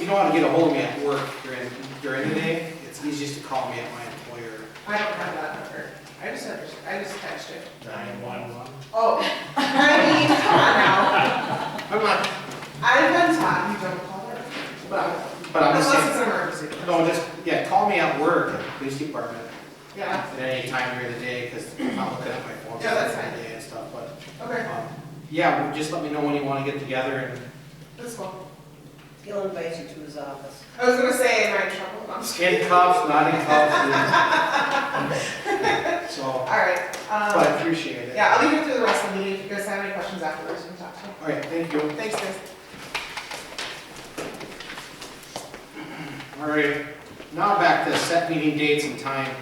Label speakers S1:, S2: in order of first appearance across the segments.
S1: you know how to get a hold of me at work during, during the day, it's easiest to call me at my employer.
S2: I don't have that number. I just under, I just touched it.
S1: Nine one one.
S2: Oh, I mean, come on now.
S1: I'm not,
S2: I've been taught you don't call her. Well,
S1: but I'm just
S2: Unless
S1: saying,
S2: it's an emergency.
S1: no, just, yeah, call me at work, at the police department,
S2: Yeah,
S1: at any time during the day, because I'm not looking at my phone.
S2: Yeah, that's
S1: during the
S2: fine.
S1: Day and stuff, but,
S2: okay,
S1: um, yeah, well, just let me know when you want to get together and
S2: that's cool.
S3: He'll invite you to his office.
S2: I was gonna say, am I in trouble? I'm just
S1: in cuffs, not in cuffs. and- So,
S2: All right,
S1: but I
S2: um,
S1: appreciate it.
S2: yeah, I'll leave it through the rest of the meeting. If you guys have any questions afterwards, you can talk to me.
S1: All right, thank you.
S2: Thanks, guys.
S1: All right, now back to set meeting dates and time.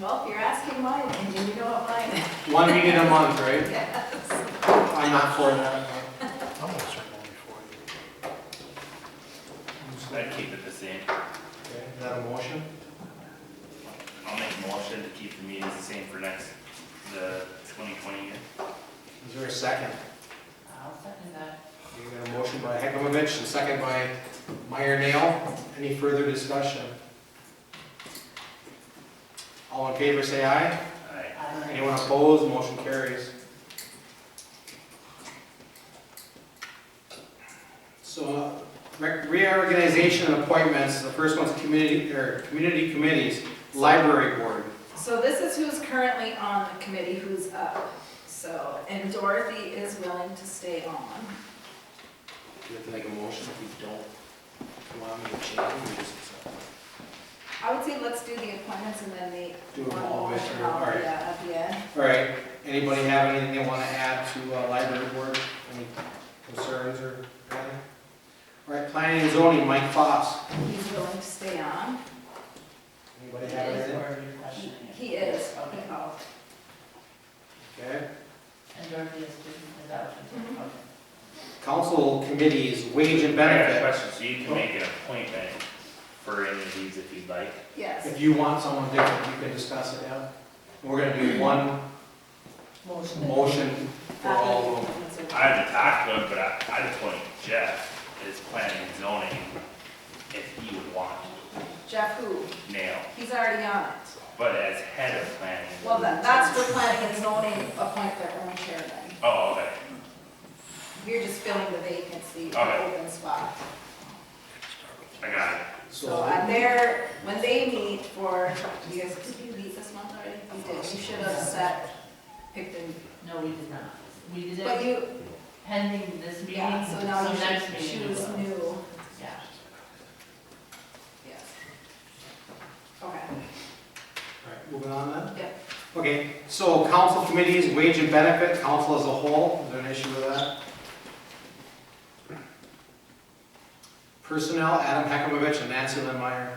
S4: Well, if you're asking mine, and you know what mine is.
S1: One meeting a month, right? I'm not for that.
S5: I'm gonna start going before you.
S6: I'd keep it the same.
S1: Okay, Is that a motion?
S6: I'll make a motion to keep the meetings the same for next, the twenty twenty year.
S1: Is there a second?
S4: I'll second that.
S1: You got a motion by Hekmovich and second by Meyer Nail. Any further discussion? All in favor, say aye.
S6: Aye.
S4: I-
S1: Anyone opposed, motion carries. So uh, re- reorganization and appointments, the first one's community, or community committees, library board.
S4: So this is who's currently on the committee, who's up. So, and Dorothy is willing to stay on.
S1: Do you have to make a motion if you don't want me to change it? we just accept it?
S4: I would say let's do the appointments and then the.
S1: Do them all,
S4: one
S1: Mr.
S4: more,
S1: All right.
S4: Yeah, at the end.
S1: All right, anybody have anything they want to add to uh, library board? Any concerns or anything? All right, planning and zoning, Mike Foss.
S4: He's willing to stay on.
S1: Anybody have anything?
S4: He- He is, he called.
S1: Okay.
S3: And Dorothy is doing that.
S4: Mhm.
S1: Council committees, wage and
S6: I got a
S1: benefit.
S6: question, so you can make an appointment for any of these if you'd like.
S4: Yes.
S1: If you want someone different, you can discuss it, yeah? We're gonna do one
S3: Motion.
S1: motion for all of them.
S6: I haven't talked to him, but I, I'd appoint Jeff as planning and zoning if he would want
S4: Jeff who?
S6: to nail,
S4: He's already on it.
S6: but as head of planning.
S4: Well, that, that's where planning and zoning appoint their own chairman.
S6: Oh, okay,
S4: You're just filling the vacancy, the
S6: Okay.
S4: open spot.
S6: I got it.
S4: So
S1: So,
S4: I'm there, when they meet for, you guys, did you meet this month already? You did, you should have set, picked them.
S3: No, we did not. We did
S4: But
S3: it
S4: you,
S3: pending this meeting,
S4: yeah, so now
S3: Mm-hmm. so
S4: you
S3: next
S4: should
S3: meeting. we
S4: choose
S3: will.
S4: new,
S3: Yeah.
S4: yes. Okay,
S1: alright, moving on then?
S4: Yep.
S1: Okay, so council committees, wage and benefit, council as a whole, is there an issue with that? Personnel, Adam Hekamovich and Nancy Lynn Meyer.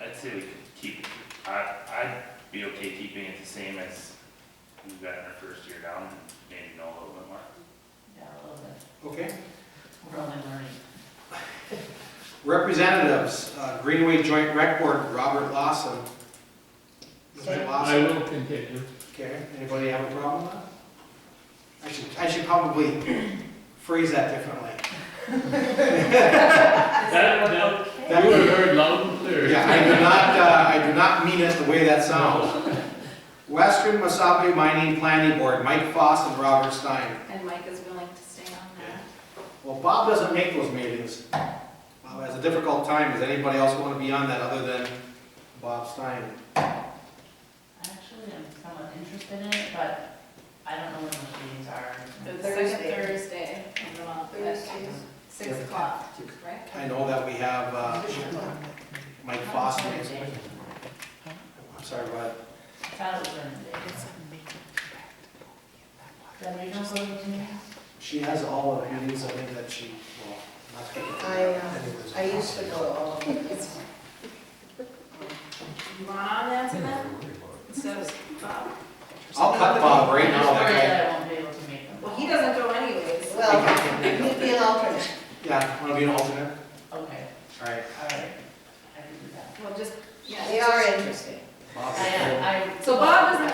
S6: I'd say we could keep, I, I'd be okay keeping it the same as we've got in our first year down, maybe know a little bit more.
S3: Yeah, a little bit.
S1: Okay.
S3: We're only learning.
S1: Representatives, uh, Greenway Joint Rec Board, Robert Lawson. Mr. Lawson.
S7: I will continue.
S1: Okay, anybody have a problem with that? I should, I should probably phrase that differently.
S7: That, that,
S1: That-
S7: you were heard loud and clear.
S1: Yeah, I do not, uh, I do not mean it the way that sounds. Western Masabi Mining Planning Board, Mike Foss and Robert Stein.
S4: and Mike is willing to stay on that.
S1: Well, Bob doesn't make those meetings. Bob has a difficult time. Does anybody else want to be on that other than Bob Stein?
S3: Actually, I'm somewhat interested in it, but I don't know when those meetings are.
S4: The second
S3: Thursday.
S4: Thursday of the month, at
S3: Thursdays.
S4: six o'clock, right?
S1: I know that we have, uh, Mike Foss. meetings. I'm sorry, but
S3: I thought it was during the day. Then we don't go to those meetings?
S1: She has all of the meetings, I think that she, well, not that-
S2: I, uh,
S1: anyways.
S2: I used to go to all of them.
S4: You want on that to them? Instead of Bob?
S1: I'll cut Bob right now, that
S3: Sorry
S1: guy.
S3: that I won't be able to make them.
S4: Well, he doesn't go anyways.
S2: Well, you'd be an alternate.
S1: Yeah, wanna be an alternate?
S3: Okay,
S1: Alright.
S3: all right. I can do that.
S4: Well, just, yeah.
S2: They are interesting.
S1: Bob.
S3: I, I.
S4: So Bob